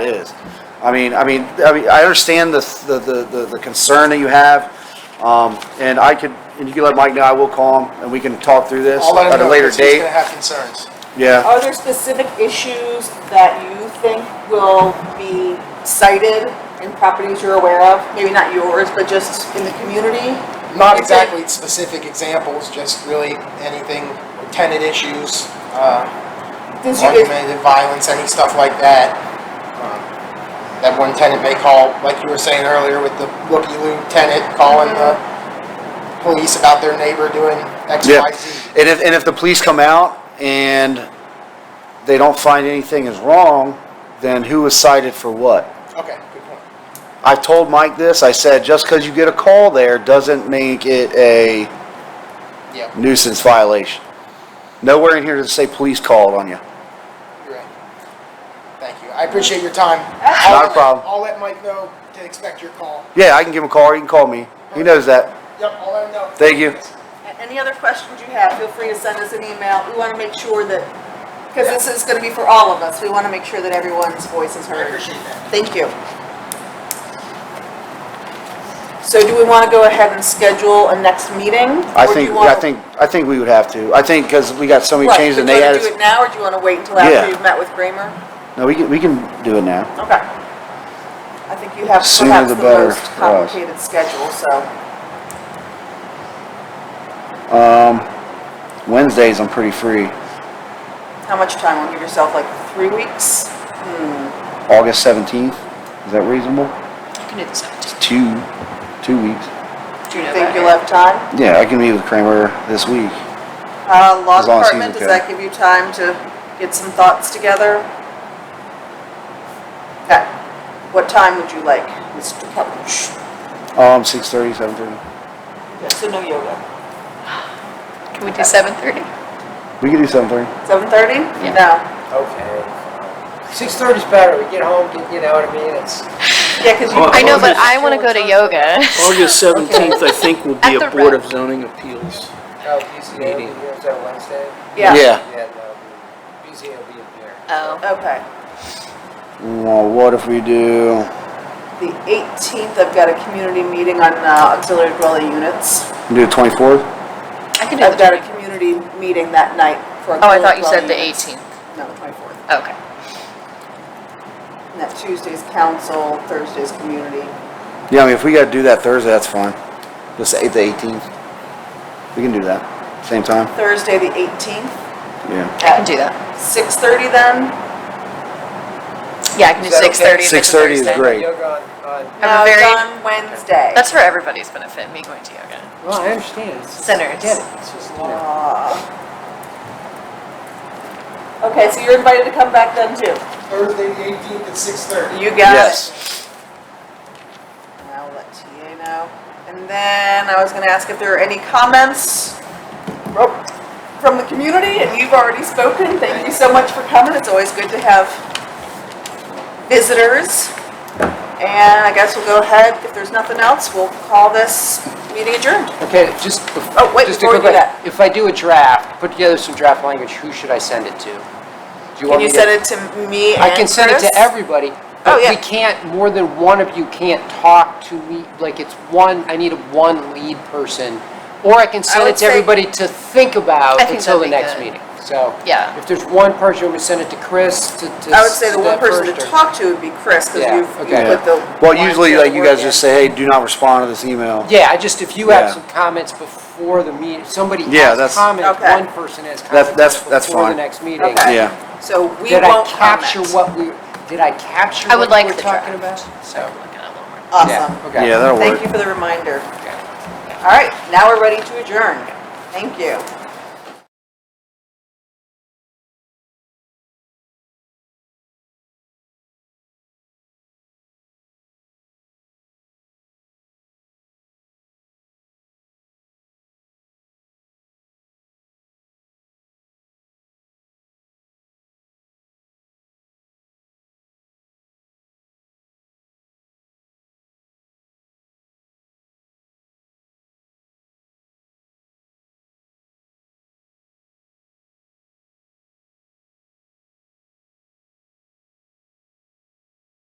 it is. I mean, I mean, I mean, I understand the, the, the- the, the concern that you have, um, and I could, and you can let Mike know, I will call him, and we can talk through this I'll let him at a know later because he's date. gonna have concerns. Yeah, Are there specific issues that you think will be cited in properties you're aware of? Maybe not yours, but just in the community? Not Is there- exactly specific examples, just really anything, tenant issues, uh, Since you guys, argumentative violence, any stuff like that. Um, That one tenant may call, like you were saying earlier with the looky-loo tenant calling the police about their neighbor doing X, yeah. Y, Z. And if, and if the police come out and they don't find anything is wrong, then who was cited for what? Okay, good point. I told Mike this, I said, just because you get a call there doesn't make it a Yeah, nuisance violation. Nowhere in here does it say police called on you. you're right. Thank you. I appreciate your time. Not I'll a let- problem. I'll let Mike know to expect your call. Yeah, I can give him a call, or he can call me. He knows that. Yep, I'll let him know. Thank you. any other questions you have, feel free to send us an email. We want to make sure that, because this is going to be for all of us, we want to make sure that everyone's voice is I heard. appreciate that. Thank you. So do we want to go ahead and schedule a next meeting? I or do think, you wanna- I think, I think we would have to. I think, because we got so many Right, changes and do you they wanna added. Do it now, or do you want to wait until Yeah. after you've met with Kramer? No, we can, we can do it now. Okay. I think you have Sooner perhaps the the better most for us. complicated schedule, so. Wednesdays, I'm pretty free. How much time? Will give yourself like three weeks? August 17th, is that reasonable? You can do the It's seventeenth. two, two weeks. Do you You know think that? you'll have time? Yeah, I can meet with Kramer this week. Uh, law As long as he's department, does okay. that give you time to get some thoughts together? Okay. What time would you like, Mr. Couch? Um, 6:30, 7:30. So no yoga. Can we do seven thirty? We can do 7:30. Seven thirty? Yeah. No. Okay. Six thirty's better, we get home, get- you know what I mean, it's. Yeah, because you. I know, but I want to go to yoga. August 17th, I think, will be At a the Board rec. of Zoning Appeals. Oh, BZA, Meeting. is that Wednesday? Yeah. Yeah, no, BZA will be in here. Oh, Okay. Well, what if we do, The eighteenth, I've got a community meeting on uh, auxiliary dwelling units. do the 24th? I can do the I've got twenty. a community meeting that night for. Oh, I thought you said auxiliary the dwelling units. eighteenth. No, the twenty-fourth. Okay. And that Tuesday's council, Thursday's community. Yeah, I mean, if we gotta do that Thursday, that's fine. Just eight to eighteenth. We can do that. Same time? Thursday, the eighteenth, Yeah. I can do that. six-thirty then? Yeah, I can do Is that okay? six thirty. 6:30 is great. Yoga on, on, I have a No, it's very- on Uh, Wednesday. That's for everybody's benefit, me going to yoga. well, I understand, it's, I Centers. get it, it's just, you know. Uh, Okay, so you're invited to come back then too. Thursday, the eighteenth at six thirty. You got it. Yes. And I'll let TA know. And then I was gonna ask if there are any comments from the community, and you've already spoken. Thank you so much for coming. It's always good to have visitors. And I guess we'll go ahead, if there's nothing else, we'll call this meeting adjourned. Okay, just. bef- Oh, wait, just to before we go do back, If I do a draft, put together some draft language, who should I send it to? Do you Can want me you to? send it to me and I can send it to Chris? everybody, Oh, but yeah. we can't, more than one of you can't talk to me, like, it's one, I need one lead person. Or I can send would it to say- everybody to think about I think until the that'd be next good. meeting, so. Yeah. If there's one person, I'm gonna send it to Chris, to, to. I would say the one person to first or- talk to would be Chris, because Yeah, you've, you okay. put the. Well, lines usually, of like, you work guys in. just say, hey, do not respond to this email. Yeah, I just, if you have Yeah. some comments before the meeting, somebody Yeah, has that's- comments, Okay. one person has That- that's- comments that's before the fine. next meeting. Okay. Yeah. So we Did I won't capture comment. what we, did I capture I what would we like were the talking about? draft. So, Looking at a little more. Awesome. yeah, okay. Yeah, that'll Thank work. you for the reminder. Okay. All right, now we're ready to adjourn. Thank you.